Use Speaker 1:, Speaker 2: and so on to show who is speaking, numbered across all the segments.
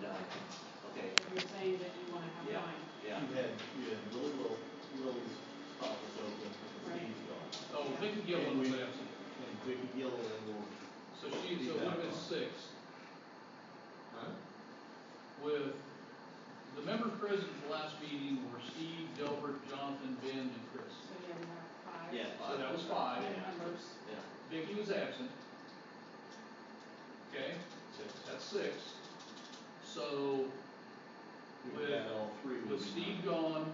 Speaker 1: Okay,
Speaker 2: You're saying that you wanna have
Speaker 1: Yeah.
Speaker 2: nine.
Speaker 1: yeah.
Speaker 3: You had, you had Willow, Willow's spot was open because
Speaker 2: Right.
Speaker 3: Steve's gone.
Speaker 4: Oh, Vicky Gillen was absent,
Speaker 3: And Vicky Gillen will,
Speaker 4: so she, so it would have been six.
Speaker 3: huh?
Speaker 4: With, the members present at the last meeting were Steve, Delbert, Jonathan, Ben, and Chris.
Speaker 2: So you have five.
Speaker 1: Yeah.
Speaker 4: So that was five.
Speaker 2: Five members.
Speaker 1: Yeah.
Speaker 4: Vicky was absent. Okay, that's six. So
Speaker 3: We had all three. would
Speaker 4: with
Speaker 3: be nine.
Speaker 4: Steve gone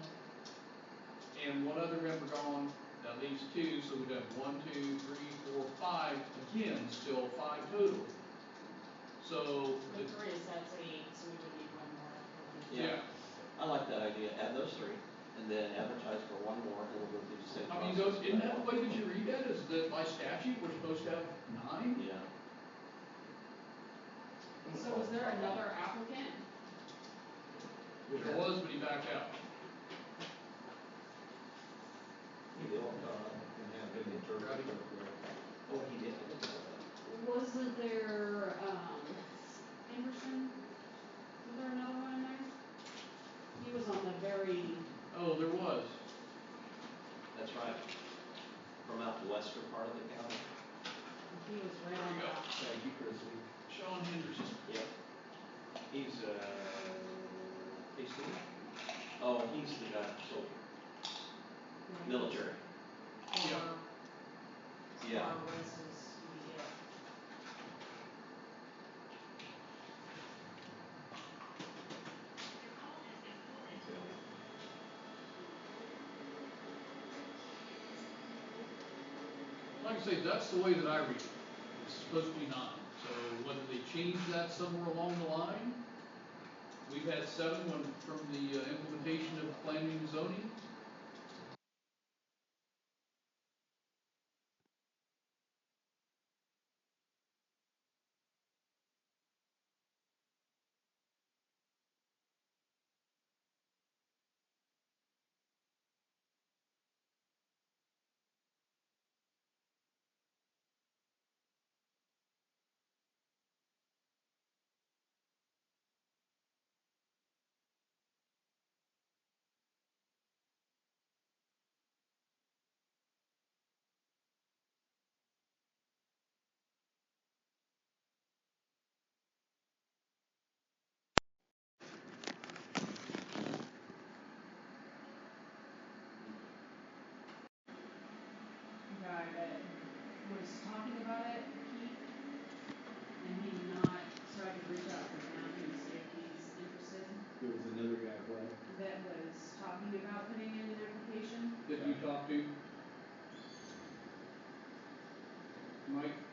Speaker 4: and one other member gone, that leaves two, so we'd have one, two, three, four, five, again, still five total. So,
Speaker 2: With
Speaker 4: the-
Speaker 2: three, so that's eight, so we would need one more.
Speaker 4: yeah,
Speaker 1: I like that idea, add those three, and then advertise for one more, and we'll go through the same
Speaker 4: I
Speaker 1: process.
Speaker 4: mean, those, isn't that the way that you read that, is that by statute, we're supposed to have nine?
Speaker 1: Yeah.
Speaker 2: So was there another applicant?
Speaker 4: There was, but he backed out.
Speaker 3: He did, uh, and had been interpreted.
Speaker 1: Oh, he did, I didn't know that.
Speaker 2: Wasn't there, um, Emerson? Was there another one in there? He was on the very,
Speaker 4: Oh, there was.
Speaker 1: That's right. From out the western part of the county.
Speaker 2: he was right on
Speaker 4: There you go.
Speaker 2: that.
Speaker 3: Thank you, Chrissy.
Speaker 4: Sean Henderson.
Speaker 1: Yep. He's, uh, he's the, oh, he's the guy, soldier,
Speaker 2: right?
Speaker 1: military.
Speaker 2: Or-
Speaker 4: Yeah.
Speaker 1: Yeah.
Speaker 2: Or was this, yeah.
Speaker 4: Like I say, that's the way that I read it. It's supposed to be nine. So whether they change that somewhere along the line, we've had seven when, from the uh, implementation of planning and zoning.
Speaker 2: the guy that was talking about it, Keith, and he did not, so I could reach out to him and see if he's interested,
Speaker 3: There was another guy, right?
Speaker 2: that was talking about putting in an application.
Speaker 4: that you talked to? Mike?